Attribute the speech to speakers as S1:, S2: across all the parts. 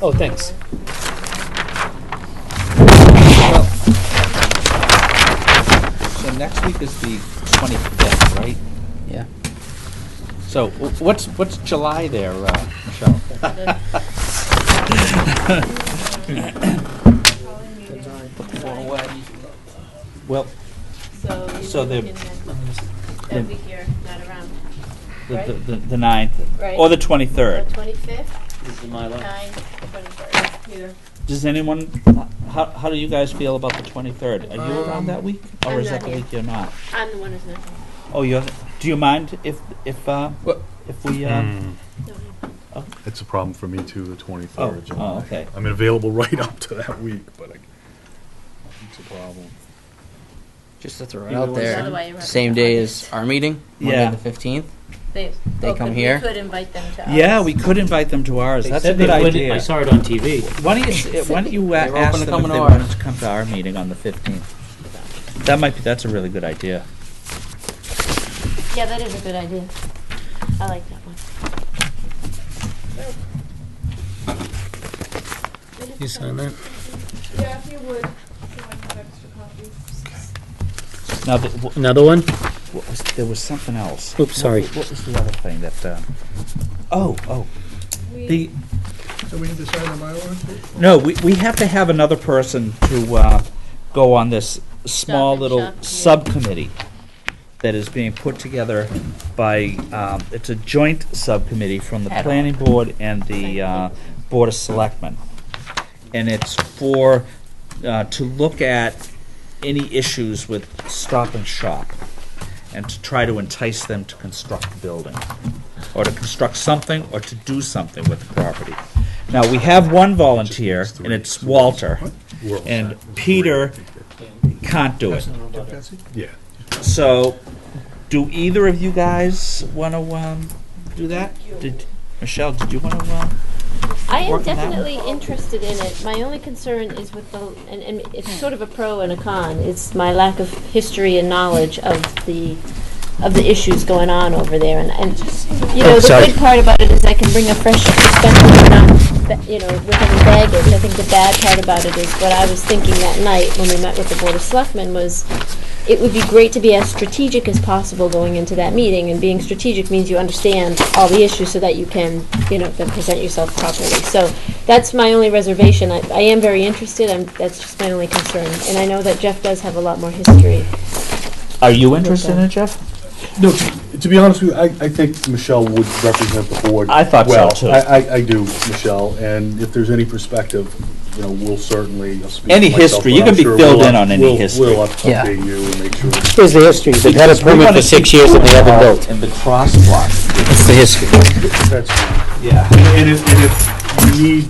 S1: Oh, thanks.
S2: Well, So next week is the twenty-fifth, right?
S3: Yeah.
S2: So wh- what's, what's July there, uh, Michelle? Put the phone away. Well, So
S1: So
S2: the-
S1: you're looking at that week you're not around.
S2: the,
S1: Right.
S2: the- the, the ninth,
S1: Right. Uh.
S2: or the twenty-third.
S1: The 25th,
S3: This is my line.
S1: 9th, 21st, either.
S2: Does anyone, how, how do you guys feel about the twenty-third? Are you around that week, or
S1: Um, I'm
S2: is
S1: not
S2: that the
S1: here.
S2: week you're not?
S1: I'm the one who's not.
S2: Oh, you're, do you mind if, if, uh,
S3: What?
S2: if we, uh,
S4: Hmm.
S5: Hmm.
S1: No,
S4: It's a problem for me too, the 23rd
S2: Oh,
S4: of July.
S2: oh, okay.
S4: I'm available right up to that week, but I- it's a problem.
S3: Just to throw it
S2: Either
S3: out
S2: one's
S1: By the
S3: there,
S1: way, you're right.
S3: same day as our meeting,
S2: Yeah.
S3: Monday the fifteenth.
S1: They
S3: They
S1: oh,
S3: come
S1: but
S3: here?
S1: We could invite them to.
S2: yeah,
S1: ours.
S2: we could invite them to ours,
S5: They
S2: that's a
S5: said
S2: good
S5: they wouldn't-
S2: idea.
S5: I saw it on TV.
S2: Why don't you, uh, why don't you uh,
S3: They were
S2: ask
S3: open to
S2: them
S3: come
S2: if
S3: to
S2: they
S3: ours.
S2: wanted to come to our meeting on the 15th? That might be, that's a really good idea.
S1: Yeah, that is a good idea. I like that one.
S6: You sign that?
S7: Yeah, if you would, if I have extra copies.
S2: Now, the- wh-
S5: Another one?
S2: what was, there was something else.
S5: Oops, sorry.
S2: What was the other thing that, uh, oh, oh, the,
S6: So we need to sign the Mylar?
S2: no, we, we have to have another person to, uh, go on this
S1: Stop
S2: small
S1: and
S2: little
S1: shop committee.
S2: subcommittee that is being put together by, um, it's a joint subcommittee from the
S3: Ad hoc.
S2: planning board and the, uh, board of selectmen. And it's for, uh, to look at any issues with stop and shop and to try to entice them to construct the building or to construct something or to do something with the property. Now, we have one volunteer and it's Walter
S4: We're all
S2: and
S4: set.
S2: Peter can't do it.
S4: Yeah.
S2: So, do either of you guys want to um, do that? Did Michelle? Did you want to? Um,
S1: I am
S2: Working that
S1: definitely interested in it. My only concern is with the, and, and it's sort of a pro and a con. It's my lack of history and knowledge of the, of the issues going on over there. And, and, you know, the
S2: Sorry.
S1: good part about it is I can bring a fresh perspective and not, ba- you know, with any baggage. I think the bad part about it is what I was thinking that night when we met with the Board of Selectmen was, it would be great to be as strategic as possible going into that meeting, and being strategic means you understand all the issues so that you can, you know, then present yourself properly. So that's my only reservation. I, I am very interested, I'm, that's just my only concern. And I know that Jeff does have a lot more history.
S2: are you interested in it, Jeff?
S4: No, to be honest with you, I, I think Michelle would represent the board.
S2: I thought so,
S4: well.
S2: too.
S4: I, I, I do, Michelle, and if there's any perspective, you know, we'll certainly. I'll speak
S2: Any
S4: for myself,
S2: history,
S4: but
S2: you
S4: I'm
S2: can be
S4: sure
S2: filled
S4: we'll
S2: in
S4: up-
S2: on any
S4: we'll-
S2: history.
S4: We'll up-
S5: Yeah.
S4: update you and make sure.
S5: Here's the history. They've had a permit for six years and they haven't built.
S2: In the crosswalk.
S5: That's the history.
S4: That's fine.
S2: Yeah.
S4: And if, and if you need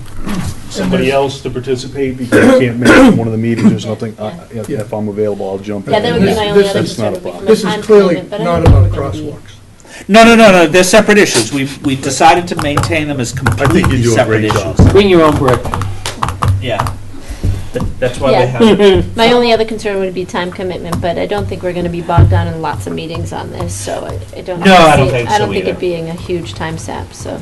S4: somebody else to participate because you can't make it to one of the meetings or something, I- I- if if I'm available, I'll jump in.
S1: Yeah, that would be my only other
S4: That's
S1: concern.
S4: not a
S1: would be
S4: problem.
S1: from
S6: This
S1: a
S6: is
S1: time
S6: clearly
S1: commitment, but I
S6: not
S1: don't
S6: about
S1: think we're gonna be-
S6: crosswalks.
S2: No, no, no, no. They're separate issues. We've we have decided to maintain them as completely
S4: I think you do a
S2: separate
S4: great job.
S2: issues.
S5: Bring your own brick.
S2: Yeah. Th- That's why
S1: Yeah.
S2: we have.
S1: My only other concern would be time commitment, but I don't think we're gonna be bogged down in lots of meetings on this, so I, I don't.
S2: No, I don't
S1: see-
S2: think
S1: I don't
S2: so
S1: think
S2: either.
S1: it being a huge time sap, so.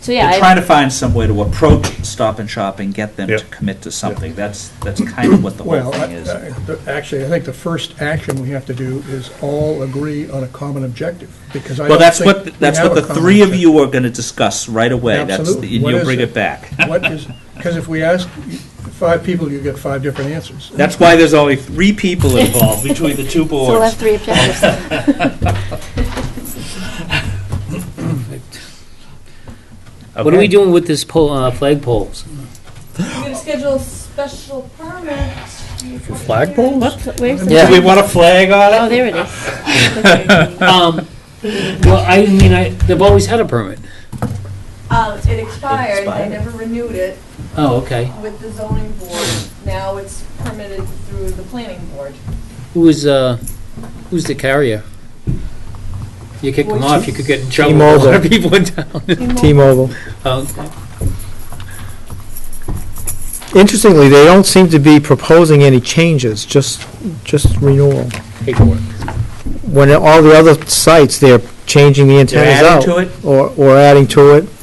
S1: So, yeah.
S2: We're
S1: I-
S2: trying to find some way to approach Stop and Shop and get them
S4: Yeah.
S2: to commit to something. That's that's kind of what the whole
S6: Well, I-
S2: thing is.
S6: I- the- actually, I think the first action we have to do is all agree on a common objective, because I
S2: Well,
S6: don't
S2: that's
S6: think
S2: what,
S6: we
S2: that's
S6: have
S2: what
S6: a
S2: the
S6: common
S2: three of
S6: objective.
S2: you are gonna discuss right away. That's, and
S6: Absolutely. What
S2: you'll
S6: is
S2: bring
S6: it?
S2: it back.
S6: What is, because if we ask five people, you get five different answers.
S2: That's why there's only three people involved between the two
S1: So we'll have
S2: boards.
S1: three objectives.
S5: What are we doing with this pole, uh, flag poles?
S7: We're gonna schedule a special permit. For
S5: flagpoles?
S1: Where's the?
S2: Do we want a flag
S1: Oh,
S2: on it?
S1: there it is.
S5: Um, well, I mean, I, they've always had a permit.
S7: Um, it expired,
S2: expired.
S7: they never renewed it
S5: Oh, okay.
S7: with the zoning board, now it's permitted through the planning board.
S5: Who is, uh, who's the carrier? You kick them off, you could get in trouble with a lot of people in town.
S8: T-Mobile.
S5: Okay.
S8: Interestingly, they don't seem to be proposing any changes, just, just renewal.
S5: Paperwork.
S8: When all the other sites, they're changing the
S2: They're
S8: antennas
S2: adding
S8: out.
S2: to it?
S8: Or, or adding to it,